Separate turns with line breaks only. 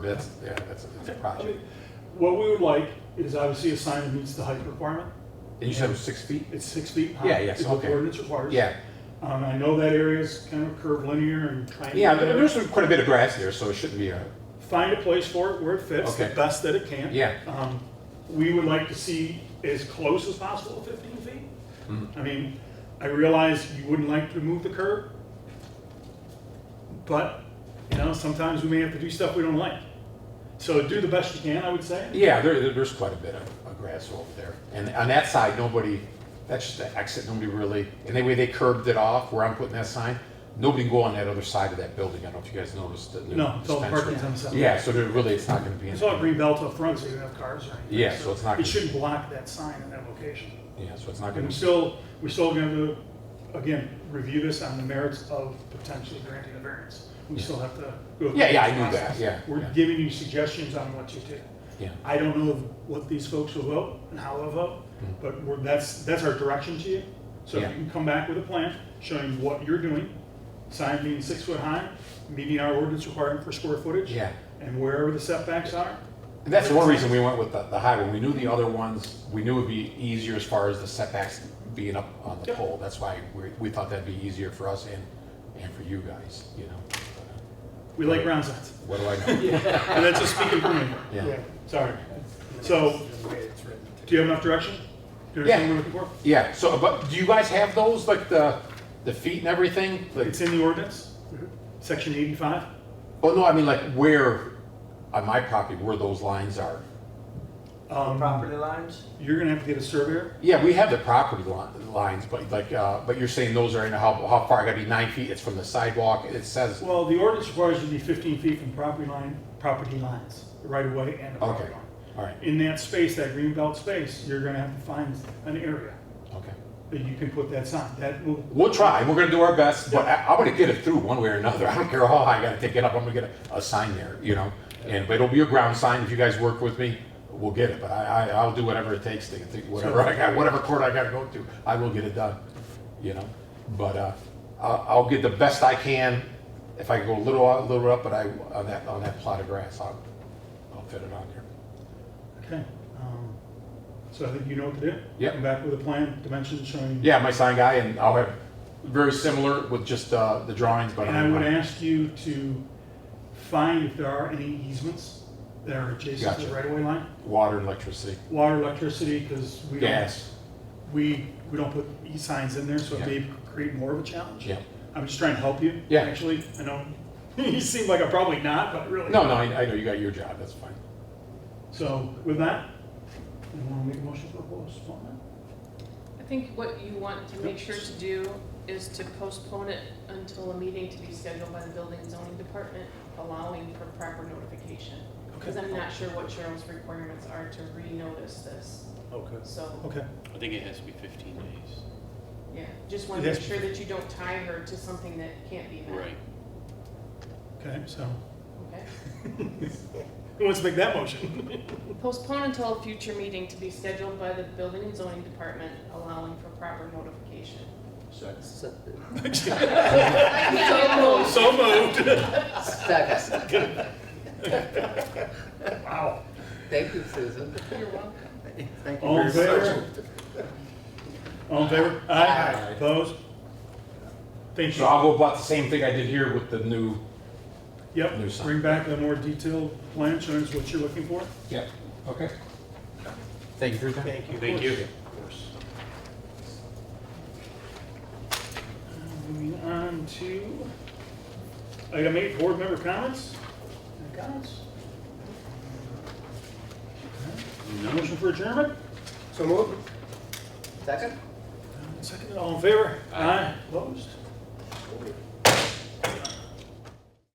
That's, yeah, that's, that's a
I mean,
project.
What we would like is obviously a sign that meets the height requirement.
And you said it was six feet?
It's six feet high.
Yeah, yes,
is what the
okay.
ordinance requires.
Yeah,
Um, I know that area is kind of curved linear and
yeah, there-
triangular.
there's some- quite a bit of grass there, so it shouldn't be a,
Find a place for it where it fits, the
Okay.
best that it can.
Yeah.
Um, we would like to see as close as possible to fifteen feet.
Mm-hmm.
I mean, I realize you wouldn't like to move the curb, but, you know, sometimes we may have to do stuff we don't like. So do the best you can, I would say.
yeah, there, there- there's quite a bit of, of grass over there. And on that side, nobody, that's just the exit, nobody really, and the way they curbed it off where I'm putting that sign, nobody can go on that other side of that building. I don't know if you guys noticed. the new
No, it's all
dispensary.
parking's on the side.
Yeah, so there really, it's not gonna be.
It's all
anything.
green belt up front, so you don't have cars or anything.
Yeah, so it's not-
It shouldn't block that sign in that location.
Yeah, so it's not
And
gonna
we
be.
still, we're still going to, again, review this on the merits of potentially granting a variance. We still have to go. through
Yeah, yeah, I
this
knew that,
process.
yeah,
We're
yeah.
giving you suggestions on what to do.
Yeah.
I don't know what these folks will vote and how they'll vote, but we're, that's, that's our direction to you. So if
Mm-hmm. Yeah.
you can come back with a plan showing what you're doing, sign being six foot high, meeting our ordinance requirement for square footage.
Yeah.
And wherever the setbacks are,
And that's one reason we went with the, the high one. We knew the other ones, we knew it'd be easier as far as the setbacks being up on the
Yep.
pole. That's why we, we thought that'd be easier for us and, and for you guys, you know?
we like round signs.
What do I know?
And that's just speaking for me.
Yeah.
Sorry. So, do you have enough direction? Do you
Yeah.
understand what we're looking for?
Yeah, so, but do you guys have those, like the, the feet and everything? Like,
It's in the ordinance, section eighty-five.
oh no, I mean like where, on my property, where those lines are.
Um,
Property lines?
You're gonna have to get a surveyor.
Yeah, we have the property li- lines, but like, uh, but you're saying those are in, how, how far? I gotta be nine feet, it's from the sidewalk, it says,
Well, the ordinance requires you to be fifteen feet from property line, property lines, the right of way and the property
okay,
line.
all right,
In that space, that green belt space, you're gonna have to find an area
okay.
that you can put that sign. That will,
We'll try. We're going to do our best, but I, I'm going to get it through one way or another. I don't care how high I got to take it up. I'm going to get a, a sign there, you know. And but it'll be a ground sign. If you guys work with me, we'll get it. But I, I I'll do whatever it takes to, to whatever I got, whatever court I got to go to, I will get it done, you know. But uh, I'll, I'll get the best I can. If I go a little out, a little up, but I on that on that plot of grass, I'll I'll fit it on there.
okay. Um, So I think you know what to do.
Yep.
Come back with a plan, dimensions showing.
Yeah, my sign guy, and I'll have very similar with just uh, the drawings, but
And I would
I'm-
ask you to find if there are any easements that are adjacent to the
Gotcha.
right-of-way line.
water and electricity,
Water, electricity, because we don't,
gas.
we, we don't put e-signs in there, so it
Yeah.
may create more of a challenge.
Yeah.
I'm just trying to help you.
Yeah.
Actually, I know, you seem like I'm probably not, but really.
No, no, I, I know you got your job. That's fine.
So with that, you want to make a motion for postponement?
I think what you want to make sure to do is to postpone it until a meeting to be scheduled by the building and zoning department, allowing for proper notification. Because I'm not sure what Cheryl's requirements are to renotice this,
Okay.
so,
Okay,
I think it has to be fifteen days.
yeah, just want
It
to
has
make
to
sure that you don't tie her to something that can't be met.
Right.
okay, so
Okay?
who wants to make that motion?
Postpone until a future meeting to be scheduled by the building and zoning department, allowing for proper notification. I can't get those.
So moved.
Second.
Wow.
Thank you, Susan.
You're welcome.
Thank
All
you
in
very much.
favor? All in favor? Aye. Opposed? Thank
So
you.
I'll go about the same thing I did here with the new. New
Yep,
sign.
bring back a more detailed plan showing us what you're looking for.
Yeah. Okay. Thank you for your time.
Thank you.
Thank you.
Moving on to item eight, board member comments. Any Comments? Okay. Motion for adjournment?
So move. Second?
Second, all in favor? Aye. Opposed?